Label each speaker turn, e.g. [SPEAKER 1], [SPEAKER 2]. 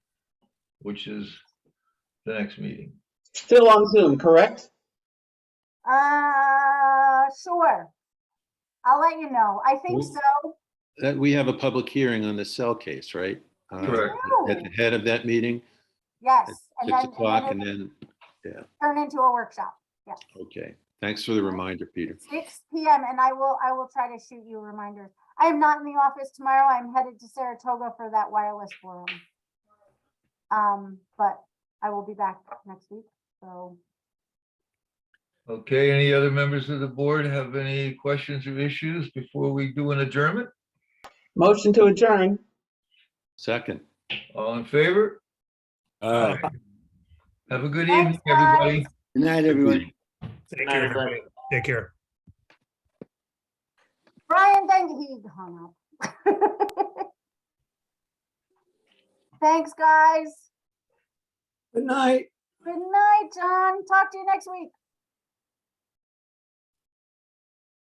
[SPEAKER 1] which is the next meeting.
[SPEAKER 2] Still on Zoom, correct?
[SPEAKER 3] Uh, sure. I'll let you know. I think
[SPEAKER 4] We-
[SPEAKER 3] so.
[SPEAKER 4] That, we have a public hearing on the cell case, right? Uh,
[SPEAKER 1] Correct.
[SPEAKER 4] At the head of that meeting,
[SPEAKER 3] Yes. and
[SPEAKER 4] six
[SPEAKER 3] then- and then
[SPEAKER 4] o'clock, and
[SPEAKER 3] it'll
[SPEAKER 4] then,
[SPEAKER 3] Turn into a workshop,
[SPEAKER 4] okay. Thanks for the reminder, Peter.
[SPEAKER 3] six PM, and I will, I will try to shoot you reminders. I am not in the office tomorrow. I'm headed to Saratoga for that wireless forum. Um, but I will be back next week, so.
[SPEAKER 1] Okay, any other members of the board have any questions or issues before we do an adjournment?
[SPEAKER 2] Motion to adjourn.
[SPEAKER 4] Second.
[SPEAKER 1] All in favor?
[SPEAKER 5] All right.
[SPEAKER 1] Have a good
[SPEAKER 3] Thanks,
[SPEAKER 1] evening, everybody.
[SPEAKER 3] guys.
[SPEAKER 6] Good night, everyone.
[SPEAKER 5] Take care. everybody. Take care.
[SPEAKER 3] Brian, thank he hung up. Thanks, guys.
[SPEAKER 6] Good night.
[SPEAKER 3] Good night, John. Talk to you next week.